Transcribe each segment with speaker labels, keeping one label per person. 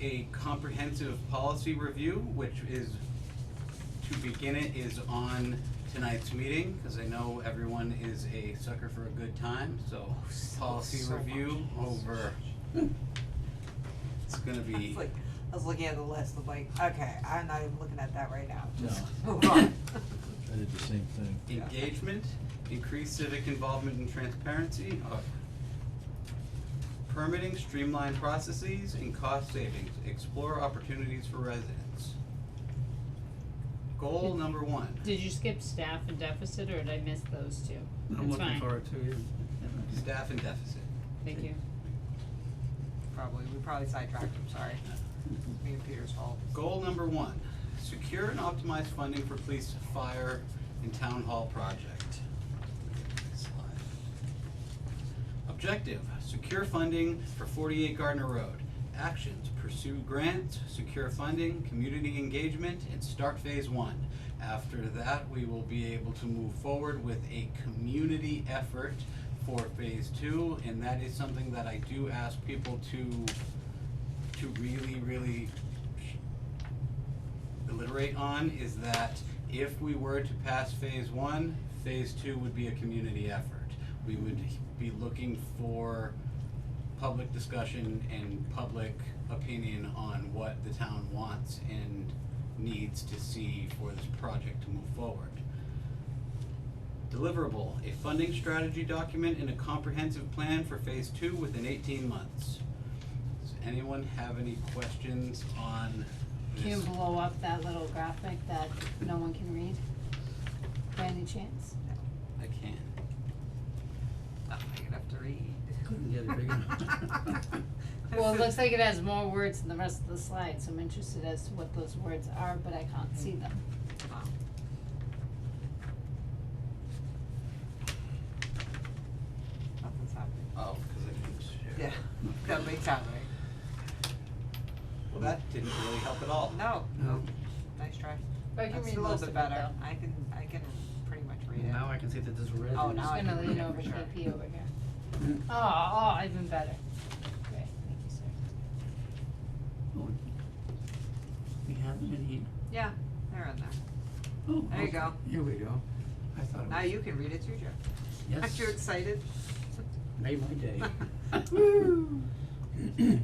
Speaker 1: a comprehensive policy review, which is, to begin it, is on tonight's meeting, because I know everyone is a sucker for a good time, so policy
Speaker 2: so
Speaker 1: review
Speaker 2: much.
Speaker 1: over. It's gonna
Speaker 2: I was
Speaker 1: be,
Speaker 2: like, I was looking at the list, I'm like, okay, I'm not even looking at that right now, just
Speaker 3: No.
Speaker 2: move on.
Speaker 3: I did the same thing.
Speaker 2: yeah.
Speaker 1: engagement, increased civic involvement and transparency, uh, permitting, streamlined processes, and cost savings, explore opportunities for residents. Goal number one.
Speaker 4: Did you skip staff and deficit, or did I miss those two? That's
Speaker 5: I'm looking
Speaker 4: fine.
Speaker 5: forward to you.
Speaker 1: Staff and deficit.
Speaker 4: Thank you.
Speaker 2: Probably, we probably sidetracked, I'm sorry, it's me and Peter's fault.
Speaker 1: Goal number one, secure and optimize funding for police, fire, and town hall project. Objective, secure funding for forty-eight Gardner Road. Actions, pursue grants, secure funding, community engagement, and start phase one. After that, we will be able to move forward with a community effort for phase two, and that is something that I do ask people to, to really, really alliterate on is that if we were to pass phase one, phase two would be a community effort. We would be looking for public discussion and public opinion on what the town wants and needs to see for this project to move forward. Deliverable, a funding strategy document and a comprehensive plan for phase two within eighteen months. Does anyone have any questions on this?
Speaker 6: Can you blow up that little graphic that no one can read? By any chance?
Speaker 1: I can.
Speaker 2: Not big enough to read.
Speaker 5: Couldn't get it big enough.
Speaker 6: Well, it looks like it has more words than the rest of the slide, so I'm interested as to what those words are, but I can't see them.
Speaker 2: Wow. Nothing's happening.
Speaker 1: Oh, because I didn't
Speaker 2: Yeah,
Speaker 1: share.
Speaker 2: nothing's happening.
Speaker 1: Well, that didn't really help at all.
Speaker 2: No, no,
Speaker 5: No.
Speaker 2: nice try.
Speaker 6: But I can
Speaker 2: That's
Speaker 6: read
Speaker 2: a little
Speaker 6: most of
Speaker 2: bit
Speaker 6: it
Speaker 2: better.
Speaker 6: though.
Speaker 2: I can, I can pretty much read it.
Speaker 5: Now I can see that there's red.
Speaker 2: Oh,
Speaker 5: in
Speaker 2: now I
Speaker 6: I'm
Speaker 5: this.
Speaker 6: gonna
Speaker 2: can
Speaker 6: lean
Speaker 2: read it
Speaker 6: over
Speaker 2: for sure.
Speaker 6: KP over here.
Speaker 5: Mm-hmm.
Speaker 6: Oh, oh, even better. Great, thank you, sir.
Speaker 5: Oh. We have them in here.
Speaker 2: Yeah, they're in there.
Speaker 5: Oh,
Speaker 2: There you
Speaker 5: okay.
Speaker 2: go.
Speaker 5: Here we go. I thought it was.
Speaker 2: Now you can read it too, Jeff. Aren't you
Speaker 5: Yes.
Speaker 2: excited?
Speaker 5: Made my day.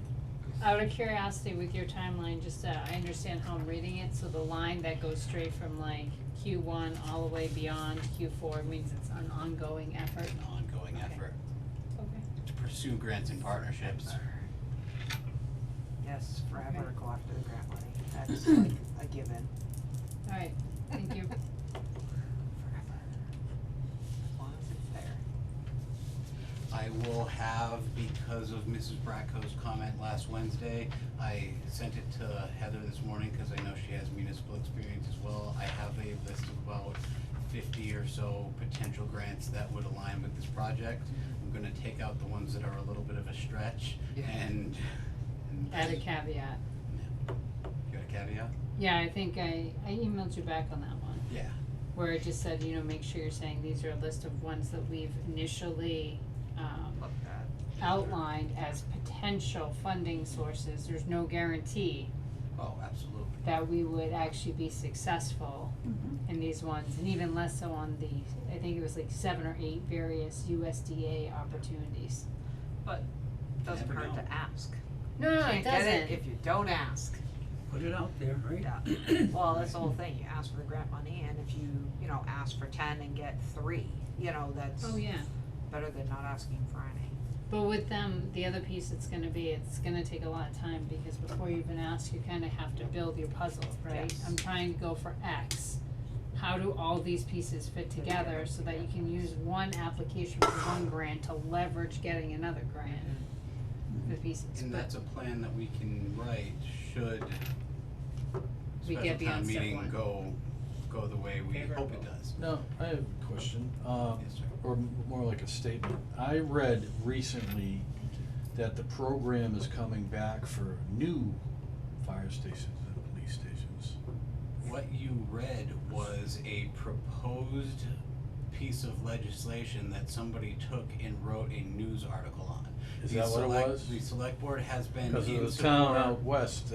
Speaker 6: Out of curiosity, with your timeline, just, uh, I understand how I'm reading it, so the line that goes straight from like Q one all the way beyond Q four means it's an ongoing effort.
Speaker 1: An ongoing
Speaker 6: Okay.
Speaker 1: effort
Speaker 6: Okay.
Speaker 1: to pursue grants and partnerships.
Speaker 2: Yes, forever
Speaker 6: Okay.
Speaker 2: go after the grant money. That's like a given.
Speaker 6: Alright, thank you.
Speaker 2: Forever. As long as it's there.
Speaker 1: I will have, because of Mrs. Bracco's comment last Wednesday, I sent it to Heather this morning because I know she has municipal experience as well. I have a list of about fifty or so potential grants that would align with this project. I'm gonna take out the ones that are a little bit of a stretch
Speaker 2: Yeah.
Speaker 1: and. and-
Speaker 6: Add a caveat.
Speaker 1: You got a caveat?
Speaker 6: Yeah, I think I, I emailed you back on that one,
Speaker 1: Yeah.
Speaker 6: where I just said, you know, make sure you're saying these are a list of ones that we've initially, um,
Speaker 2: Look at.
Speaker 6: outlined as potential funding sources. There's no guarantee
Speaker 1: Oh, absolutely.
Speaker 6: that we would actually be successful in these ones, and even less so on the, I think it was like seven or eight various USDA opportunities.
Speaker 2: Doesn't
Speaker 1: Never
Speaker 2: hurt
Speaker 1: know.
Speaker 2: to ask.
Speaker 6: No, no,
Speaker 2: Can't
Speaker 6: it
Speaker 2: get it
Speaker 6: doesn't.
Speaker 2: if you don't ask.
Speaker 5: Put it out there, right?
Speaker 2: Yeah. Well, that's the whole thing. You ask for the grant money and if you, you know, ask for ten and get three, you know, that's
Speaker 6: Oh, yeah.
Speaker 2: better than not asking for any.
Speaker 6: But with them, the other piece it's gonna be, it's gonna take a lot of time, because before you've been asked, you kinda have to build your puzzle, right?
Speaker 2: Yes.
Speaker 6: I'm trying to go for X. How do all these pieces fit together so that you can use one application for one grant to leverage getting another grant for pieces?
Speaker 1: And
Speaker 6: But-
Speaker 1: that's a plan that we can write should
Speaker 6: We
Speaker 1: special
Speaker 6: get
Speaker 1: town
Speaker 6: beyond step
Speaker 1: meeting
Speaker 6: one.
Speaker 1: go, go the way we hope it
Speaker 6: Favorable.
Speaker 1: does.
Speaker 3: Now, I have a question, um,
Speaker 1: Yes, sir.
Speaker 3: or m- more like a statement. I read recently that the program is coming back for new fire stations and police stations.
Speaker 1: What you read was a proposed piece of legislation that somebody took and wrote a news article on.
Speaker 3: Is
Speaker 1: the
Speaker 3: that what it
Speaker 1: select-
Speaker 3: was?
Speaker 1: The select board has been in
Speaker 3: Cause
Speaker 1: support.
Speaker 3: of the town out west